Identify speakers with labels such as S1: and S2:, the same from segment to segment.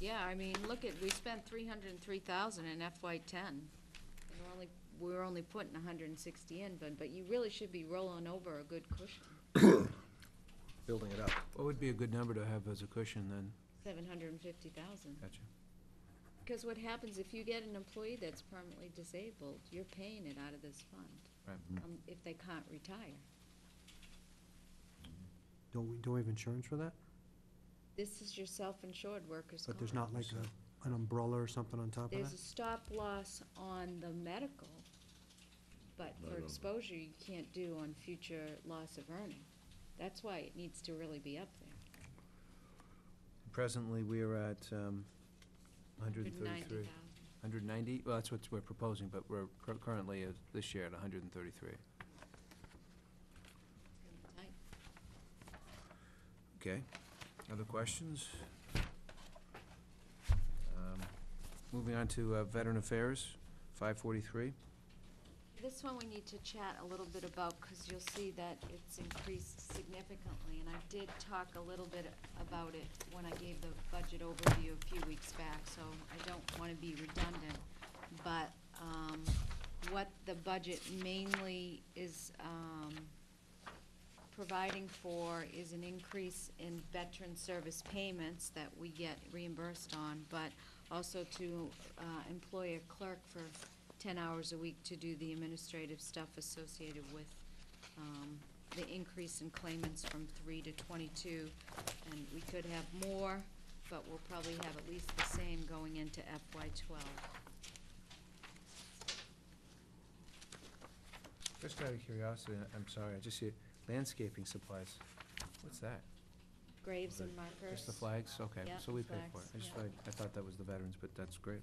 S1: Yeah, I mean, look at, we spent three hundred and three thousand in FY ten. And we're only, we're only putting hundred and sixty in, but, but you really should be rolling over a good cushion,
S2: building it up.
S3: What would be a good number to have as a cushion then?
S1: seven hundred and fifty thousand.
S3: Gotcha.
S1: Because what happens if you get an employee that's permanently disabled, you're paying it out of this fund.
S3: Right.
S1: um, If they can't retire.
S4: Don't we, don't we have insurance for that?
S1: This is your self-insured workers'
S4: But there's
S1: comp.
S4: not like a, an umbrella or something on top of
S1: There's a
S4: that?
S1: stop loss on the medical, but for exposure, you can't do on future loss of earning. That's why it needs to really be up there.
S3: Presently, we are at um, 133.
S1: 190,000.
S3: 190, well, that's what we're proposing, but we're cur- currently, uh, this year, at 133.
S1: Tight.
S3: Okay. Other questions? Um, Moving on to uh, Veteran Affairs, 543.
S1: This one we need to chat a little bit about, because you'll see that it's increased significantly, and I did talk a little bit about it when I gave the budget overview a few weeks back, so I don't want to be redundant. But, um, what the budget mainly is, um, providing for is an increase in veteran service payments that we get reimbursed on, but also to uh, employ a clerk for ten hours a week to do the administrative stuff associated with um, the increase in claimants from three to twenty-two. And we could have more, but we'll probably have at least the same going into FY twelve.
S3: Just out of curiosity, I- I'm sorry, I just see landscaping supplies. What's that?
S1: Graves and
S3: Just the
S1: markers.
S3: flags? Okay,
S1: Yeah,
S3: so we pay for it.
S1: flags,
S3: I just,
S1: yeah.
S3: like- I thought that was the veterans, but that's great.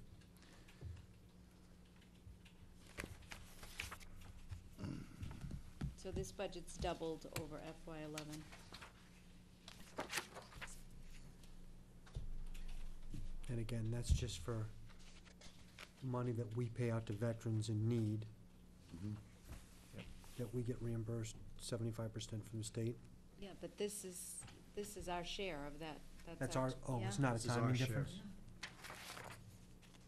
S1: So this budget's doubled over FY eleven.
S4: And again, that's just for money that we pay out to veterans in need,
S1: Mm-hmm.
S3: Yep.
S4: that we get reimbursed seventy-five percent from the state.
S1: Yeah, but this is, this is our share of that.
S4: That's our, oh, it's not
S2: This
S4: a
S2: is our
S4: timing
S2: share.
S4: difference?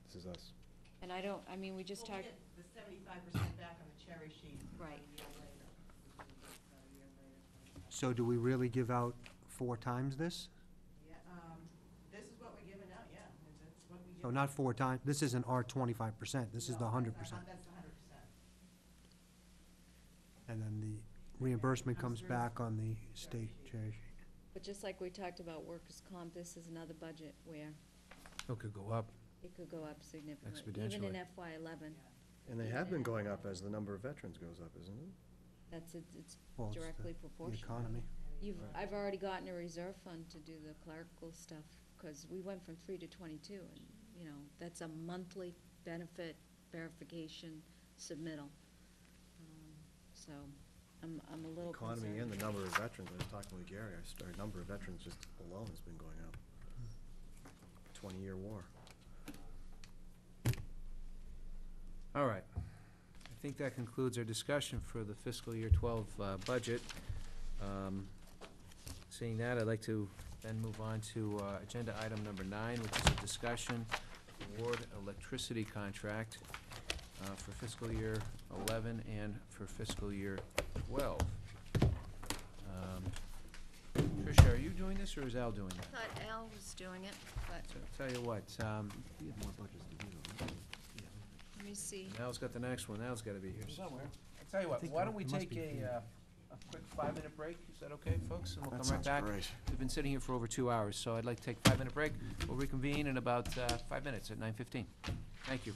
S2: This is us.
S1: And I don't, I mean, we just
S5: We'll
S1: talked,
S5: get the seventy-five percent back on the cherry sheet. about
S1: Right.
S5: a year later. About a year later.
S4: So do we really give out four times this?
S5: Yeah, um, this is what we're giving out, yeah, and that's what we give.
S4: So Oh, not four times, this isn't our twenty-five percent, this
S5: No,
S4: is the
S5: that's
S4: hundred
S5: not-
S4: percent.
S5: That's the hundred percent.
S4: And then the reimbursement
S5: Comes
S4: comes
S5: through.
S4: back on the state treasury.
S1: but just like we talked about workers' comp, this is another budget where
S3: It could go up.
S1: it could go up significantly, even in FY eleven.
S2: And they have been going up as the number of veterans goes up, isn't it?
S1: That's, it- it's
S4: Well, it's the-
S1: directly
S4: The
S1: proportional.
S4: economy.
S1: You've, I've already gotten a reserve fund to do the clerical stuff, because we went from three to twenty-two, and, you know, that's a monthly benefit verification submittal. Um, So, I'm, I'm a little concerned.
S2: Economy and the number of veterans, I was talking with Gary, I started, number of veterans just alone has been going up. Twenty-year war.
S3: All right. I think that concludes our discussion for the fiscal year 12 uh, budget. Um, Seeing that, I'd like to then move on to uh, agenda item number nine, which is a discussion award electricity contract uh, for fiscal year 11 and for fiscal year 12. Um, Tricia, are you doing this or is Al doing that?
S1: Thought Al was doing it, but
S3: So, Tell you what, um,
S2: We have more budgets to do though.
S1: let me see.
S3: Al's got the next one, Al's gotta be here somewhere. I tell you what,
S4: think
S3: why don't we
S4: it must
S3: take
S4: be
S3: a,
S4: here.
S3: uh, a quick five-minute break, is that okay, folks? And we'll come right back. We've been sitting here for over two hours, so I'd like to take a five-minute break. We'll reconvene in about, uh, five minutes at nine fifteen. Thank you.